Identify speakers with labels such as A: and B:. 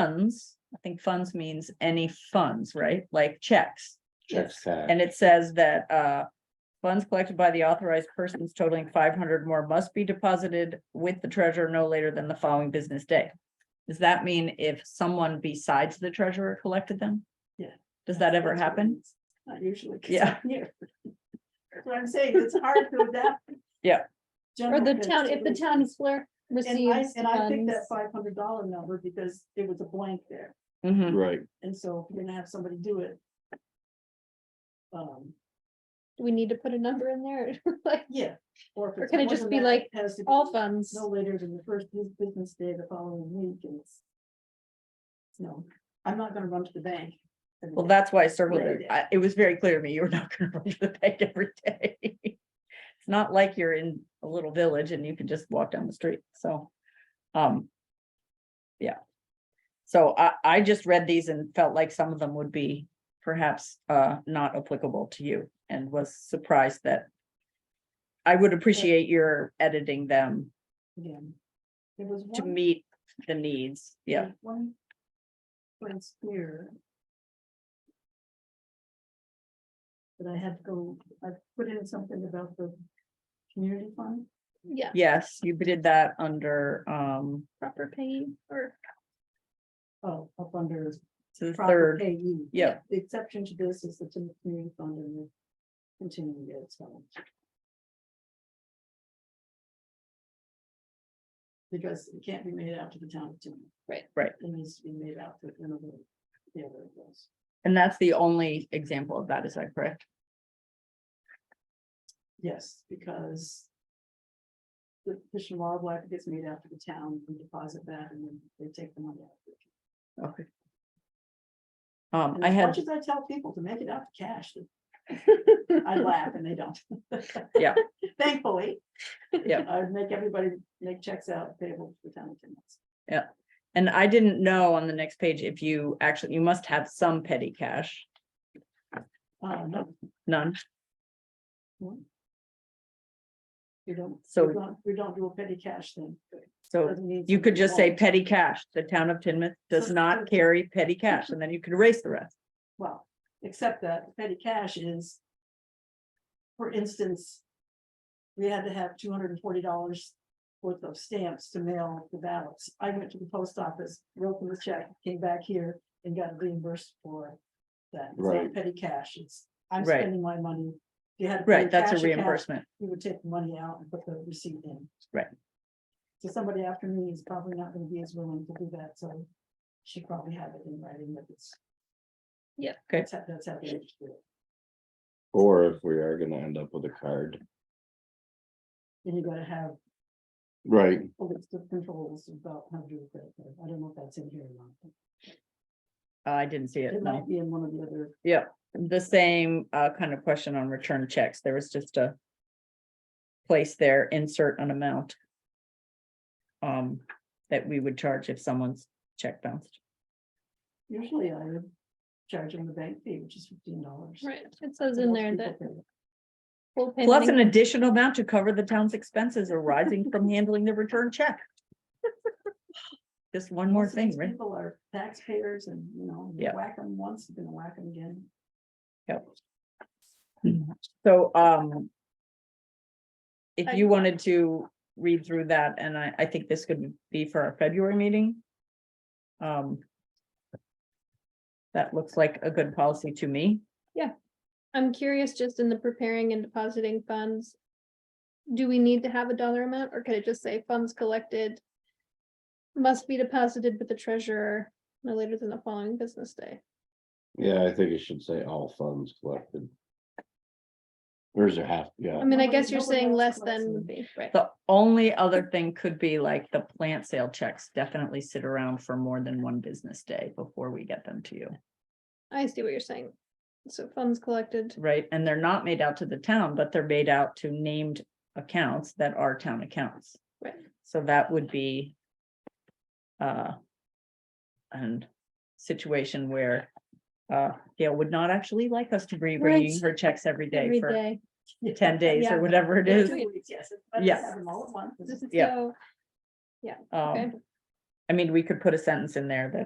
A: funds, I think funds means any funds, right? Like checks.
B: Checks that.
A: And it says that, uh, funds collected by the authorized persons totaling five hundred more must be deposited with the treasurer no later than the following business day. Does that mean if someone besides the treasurer collected them?
C: Yeah.
A: Does that ever happen?
C: Not usually. 'cause
A: Yeah.
C: I'm here. That's what I'm saying, it's hard to adapt.
A: Yeah.
D: Or
C: General
D: the town, if the
C: constitution.
D: town of Blair
C: And I,
D: receives
C: and I picked
D: funds,
C: that five hundred dollar number because it was a blank there,
A: Mhm.
B: Right,
C: and so if you're gonna have somebody do it. Um,
D: do we need to put a number in there, like
C: yeah. if
D: Or
C: it's
D: can it
C: more
D: just
C: than
D: be
C: that,
D: like
C: it has to be
D: all funds?
C: No later than the first bus- business day of the following week and it's. No, I'm not gonna run to the bank. every
A: Well,
C: day.
A: that's why I circled
C: Right.
A: it. I- It was very clear to me you were not gonna run to the bank every day. It's not like you're in a little village and you can just walk down the street, so. Um. Yeah. So I, I just read these and felt like some of them would be perhaps, uh, not applicable to you and was surprised that. I would appreciate your editing them
C: Yeah. There was
A: to
C: one.
A: meet the needs, yeah.
C: there's One. One's here. But I had to go, I put in something about the community fund.
D: Yeah,
A: Yes, you did that under, um,
D: proper pay or
C: Oh, up under.
A: to the
C: proper
A: third,
C: payee.
A: yeah.
C: The exception to this is the tim- community fund and the continuing ed fund. Because it can't be made out to the town of Tiverton.
D: Right.
A: Right.
C: It needs to be made out to another, the other of those.
A: And that's the only example of that, is that correct?
C: Yes, because the Fish and Wildlife gets made out to the town, we deposit that and then they take the money out.
A: Okay. Um,
C: And
A: I
C: as
A: had,
C: much As I tell people to make it out to cash. I laugh and they don't.
A: Yeah.
C: Thankfully.
A: Yeah.
C: I make everybody make checks out payable to the town of Timmins.
A: and I didn't know on the next page if you actually, you must have some petty cash,
C: Uh, no,
A: none.
C: you don't.
A: So-
C: we don't- We don't do a petty cash thing.
A: So you could just say petty cash. The town of Tinmouth does
C: So-
A: not carry petty cash, and then you could erase the rest.
C: Well, except that petty cash is. For instance. We had to have two hundred and forty dollars worth of stamps to mail the ballots. I went to the post office, wrote them a check, came back here and got reimbursed for. That It's not
B: Right.
C: petty cash, it's, I'm
A: Right.
C: spending my money. If You had. to pay
A: Right, that's a
C: cash account,
A: reimbursement.
C: You would take the money out and put the receipt in.
A: Right.
C: So somebody after me is probably not gonna be as willing to do that, so she probably had it in writing that it's.
A: Okay.
C: That's how, that's how they used to do it.
B: or if we are gonna end up with a card,
C: And you gotta have
B: right,
C: a list of controls about how to do a credit card. I don't know if that's in here or not. but
A: Uh, I didn't see it,
C: It
A: no.
C: might be in one of the other,
A: the same uh kind of question on return checks. There was just a place there, insert an amount um, that we would charge if someone's check bounced.
C: usually I would charge them the bank fee, which is fifteen dollars.
D: Right, it says in there that. full
A: Plus an
D: payment-
A: additional amount to cover the town's expenses arising from handling the return check. Just one more thing, right?
C: People are taxpayers and, you know, you
A: Yeah.
C: whack them once, you're gonna whack them again.
A: So, um, if you wanted to read through that, and I, I think this could be for our February meeting. Um, that looks like a good policy to me.
D: I'm curious, just in the preparing and depositing funds. Do we need to have a dollar amount or could it just say funds collected? Must be deposited with the treasurer no later than the following business day.
B: yeah, I think it should say all funds collected. There's a half, yeah,
D: I mean, I
C: Nobody-
D: guess you're
C: nobody
D: saying
C: else
D: less
C: collects
D: than
C: them.
D: would be, right?
A: The only other thing could be like the plant sale checks definitely sit around for more than one business day before we get them to you,
D: I see what you're saying. So funds collected.
A: right? And they're not made out to the town, but they're made out to named accounts that are town accounts.
D: Right.
A: So that would be uh, an situation where uh, Gail would not actually like us to be bringing
D: Right.
A: her checks every day
D: Every
A: for
D: day.
A: ten days
D: Yeah.
A: or whatever it
C: Yeah,
A: is.
C: two weeks, Yes. but just
A: Yes.
C: have them all at once.
A: Yeah.
D: So, okay.
A: Um, I mean, we could put a sentence in there that